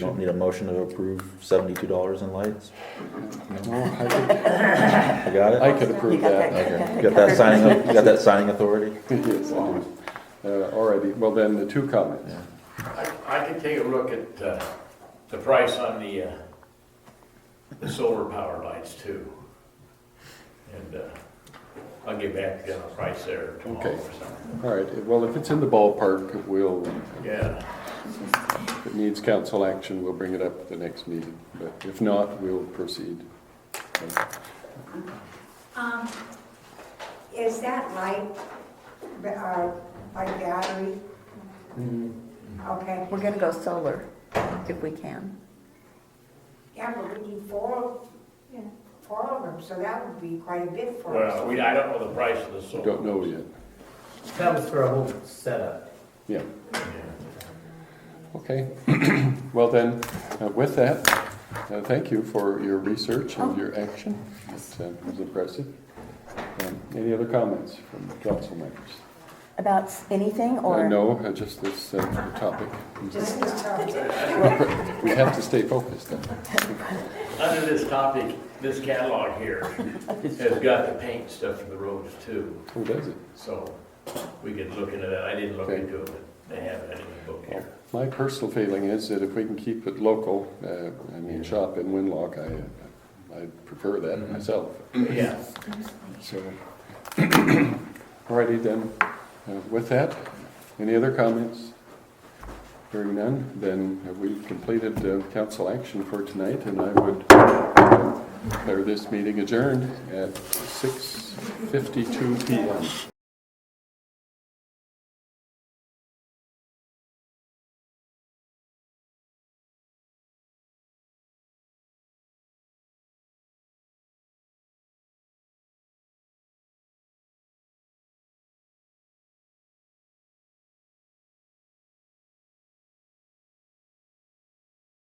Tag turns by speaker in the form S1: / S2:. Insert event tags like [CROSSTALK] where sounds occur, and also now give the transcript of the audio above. S1: You don't need a motion to approve seventy-two dollars in lights?
S2: No, I could,
S1: I got it?
S2: I could
S3: You
S2: approve
S3: got
S2: that.
S3: that, you got
S1: You
S3: that
S1: got that
S3: covered.
S1: signing, you got that signing authority?
S2: Yes, I do. Uh, All righty, well then, the two comments.
S4: I I can take a look at uh, the price on the, uh, the solar power lights too. And uh, I'll get back to you on the price there tomorrow
S2: Okay.
S4: or something.
S2: All right, well, if it's in the ballpark, we'll,
S4: Yeah,
S2: if it needs council action, we'll bring it up at the next meeting. But if not, we'll proceed.
S5: Um, Is that light, uh, like battery? Okay,
S3: We're gonna go solar if we can.
S5: yeah, but we need four, four of them, so that would be quite a bit for
S4: well,
S5: us.
S4: we, I don't know the price of the solar.
S2: Don't know yet.
S6: That was for a whole setup.
S2: Yeah. Okay, [CLEARS THROAT] well then, uh, with that, uh, thank you for your research
S3: Oh.
S2: and your action. It uh, was impressive. Um, Any other comments from council members?
S3: About s- anything
S2: Uh,
S3: or?
S2: No, uh, just this uh, topic. [LAUGHS]
S5: Just this time.
S2: We have to stay focused then.
S4: Under this topic, this catalog here has got the paint stuff for the roads too,
S2: Who does it?
S4: so we could look into that. I didn't look
S2: Okay.
S4: into it, but they have it in the book here.
S2: My personal feeling is that if we can keep it local, uh, I mean, shop in Winlock, I, I prefer that myself,
S4: Yeah.
S2: so. [COUGHS] Alrighty then, Uh, with that, any other comments? Hearing none, then have we completed uh, council action for tonight, and I would declare this meeting adjourned at six fifty-two P M.